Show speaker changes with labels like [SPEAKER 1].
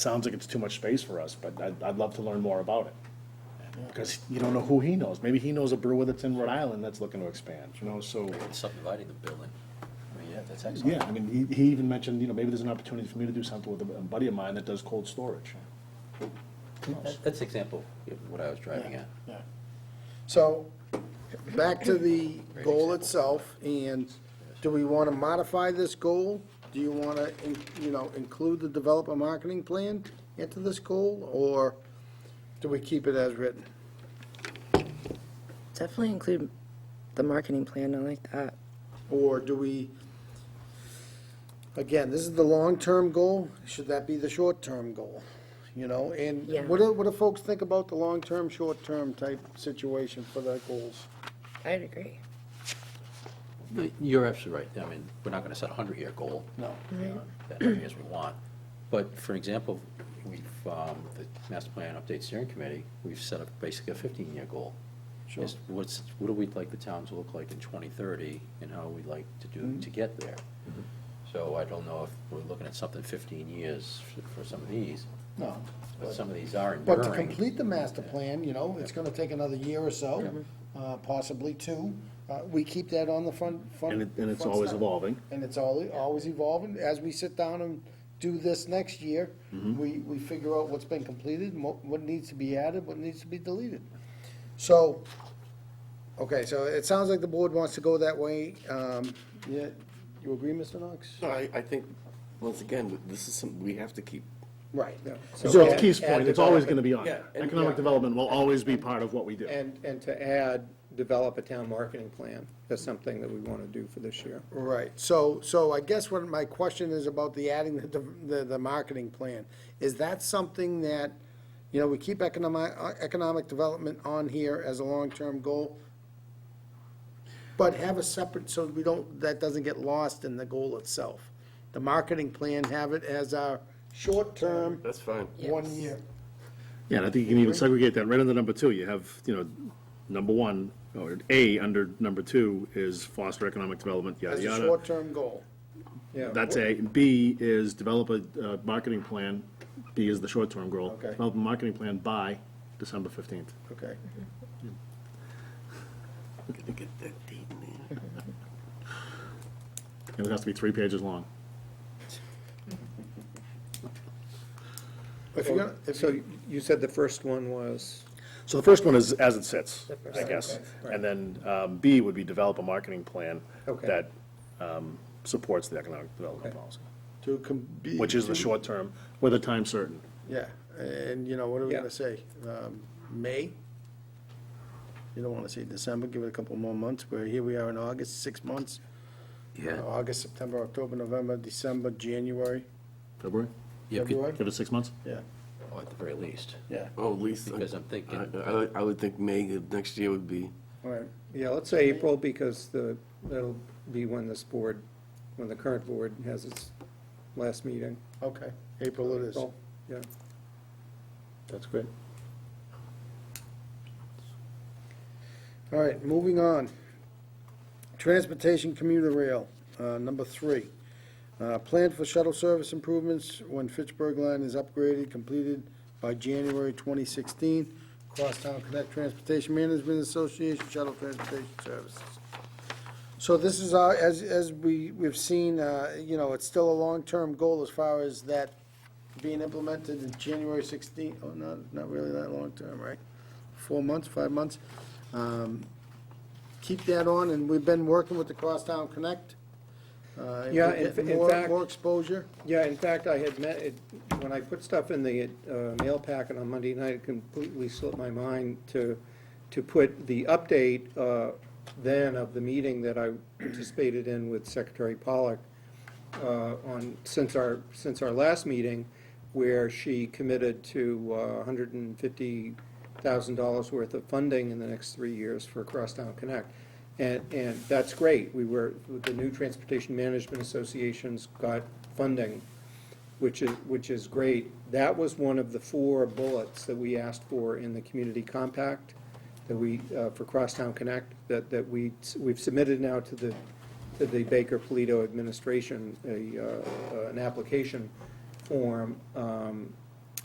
[SPEAKER 1] sounds like it's too much space for us, but I'd, I'd love to learn more about it. Because you don't know who he knows. Maybe he knows a brewer that's in Rhode Island that's looking to expand, you know, so,
[SPEAKER 2] Subdividing the building. I mean, yeah, that's excellent.
[SPEAKER 1] yeah, I mean, he, he even mentioned, you know, maybe there's an opportunity for me to do something with a buddy of mine that does cold storage. Who knows?
[SPEAKER 2] That- That's example of what I was driving at.
[SPEAKER 3] Yeah. So, back to the goal itself, and do we want to modify this goal? Do you want to, you know, include the developer marketing plan into this goal, or do we keep it as written?
[SPEAKER 4] Definitely include the marketing plan, I like that.
[SPEAKER 3] Or do we, again, this is the long-term goal, should that be the short-term goal? You know, and
[SPEAKER 4] Yeah.
[SPEAKER 3] what do, what do folks think about the long-term, short-term type situation for their goals?
[SPEAKER 4] I'd agree.
[SPEAKER 2] You're absolutely right. I mean, we're not gonna set a hundred-year goal.
[SPEAKER 3] No.
[SPEAKER 2] That many as we want. But for example, we've, um, the Master Plan Update Steering Committee, we've set up basically a fifteen-year goal.
[SPEAKER 3] Sure.
[SPEAKER 2] Just What's, what do we like the town to look like in twenty thirty, and how we'd like to do,
[SPEAKER 3] Mm-hmm.
[SPEAKER 2] to get there? So I don't know if we're looking at something fifteen years for- for some of these,
[SPEAKER 3] No.
[SPEAKER 2] but some of these are enduring.
[SPEAKER 3] But to complete the master plan, you know, it's gonna take another year or so, uh, possibly two. Uh, We keep that on the front, front.
[SPEAKER 1] And it, and it's
[SPEAKER 3] front
[SPEAKER 1] always
[SPEAKER 3] step.
[SPEAKER 1] evolving.
[SPEAKER 3] And it's al- always evolving. As we sit down and do this next year,
[SPEAKER 1] Mm-hmm.
[SPEAKER 3] we, we figure out what's been completed, and what, what needs to be added, what needs to be deleted. So, okay, so it sounds like the board wants to go that way. Um, Yeah, you agree, Mr. Knox?
[SPEAKER 5] No, I, I think, once again, this is something we have to keep.
[SPEAKER 3] Right.
[SPEAKER 1] So to
[SPEAKER 3] add-
[SPEAKER 1] Keith's
[SPEAKER 3] add
[SPEAKER 1] point, it's always
[SPEAKER 3] development.
[SPEAKER 1] gonna be on.
[SPEAKER 5] Yeah, and-
[SPEAKER 1] Economic
[SPEAKER 5] yeah.
[SPEAKER 1] development will always be part of what we do.
[SPEAKER 6] And, and to add, develop a town marketing plan, that's something that we want to do for this year.
[SPEAKER 3] Right, so, so I guess what my question is about the adding the, the, the marketing plan. Is that something that, you know, we keep economic, economic development on here as a long-term goal, but have a separate, so we don't, that doesn't get lost in the goal itself. The marketing plan, have it as our short-term,
[SPEAKER 5] That's fine.
[SPEAKER 3] one year.
[SPEAKER 1] Yeah, and I think you can even segregate that right under number two. You have, you know, number one, or A under number two is foster economic development, yada,
[SPEAKER 3] As a
[SPEAKER 1] yada.
[SPEAKER 3] short-term goal.
[SPEAKER 6] Yeah,
[SPEAKER 1] That's A. And B is develop a uh, marketing plan. B is the short-term goal.
[SPEAKER 3] Okay.
[SPEAKER 1] Develop a marketing plan by December 15th.
[SPEAKER 3] Okay.
[SPEAKER 5] Gotta get that date in there.
[SPEAKER 1] And it has to be three pages long.
[SPEAKER 3] If you're gonna, if
[SPEAKER 6] so you said the first one was,
[SPEAKER 1] So the first one is as it sits,
[SPEAKER 4] The first
[SPEAKER 1] I
[SPEAKER 4] one,
[SPEAKER 1] guess. And then um, B would be develop a marketing plan
[SPEAKER 6] Okay.
[SPEAKER 1] that um, supports the economic development policy,
[SPEAKER 3] to com- be.
[SPEAKER 1] which is the short term, with a time certain.
[SPEAKER 3] Yeah, and you know, what are we
[SPEAKER 6] Yeah.
[SPEAKER 3] gonna say? Um, May? You don't wanna say December, give it a couple more months, where here we are in August, six months.
[SPEAKER 2] Yeah.
[SPEAKER 3] August, September, October, November, December, January,
[SPEAKER 1] February?
[SPEAKER 2] Yeah, could-
[SPEAKER 3] February?
[SPEAKER 1] Give it six months?
[SPEAKER 3] Yeah,
[SPEAKER 2] or Oh, at the very least.
[SPEAKER 3] yeah,
[SPEAKER 5] Oh, at least.
[SPEAKER 2] Because I'm thinking-
[SPEAKER 5] I, I would- I would think May of next year would be,
[SPEAKER 3] all right.
[SPEAKER 6] yeah, let's say April, because the, that'll be when this board, when the current board has its last meeting.
[SPEAKER 3] Okay, April it is.
[SPEAKER 6] April, Yeah,
[SPEAKER 1] That's great.
[SPEAKER 3] All right, moving on. Transportation commuter rail, uh, number three. Uh, Plan for shuttle service improvements when Fitchburg line is upgraded, completed by January 2016. Crosstown Connect Transportation Management Association Shuttle Transportation Services. So this is, our- as, as we, we've seen, uh, you know, it's still a long-term goal as far as that being implemented in January 16. Oh, not, not really that long-term, right? Four months, five months? Um, Keep that on, and we've been working with the Crosstown Connect. Uh,
[SPEAKER 6] Yeah,
[SPEAKER 3] we're
[SPEAKER 6] in-
[SPEAKER 3] getting
[SPEAKER 6] in
[SPEAKER 3] more-
[SPEAKER 6] fact-
[SPEAKER 3] More exposure.
[SPEAKER 6] yeah, in fact, I had met, it- when I put stuff in the uh, mail packet on Monday night, it completely slipped my mind to, to put the update uh, then of the meeting that I participated in with Secretary Pollock uh, on, since our, since our last meeting, where she committed to uh, $150,000 worth of funding in the next three years for Crosstown Connect. And, and that's great. We were, the new Transportation Management Associations got funding, which is, which is great. That was one of the four bullets that we asked for in the community compact that we, uh, for Crosstown Connect, that, that we, we've submitted now to the, to the Baker Polito administration, a, uh, uh, an application form, um,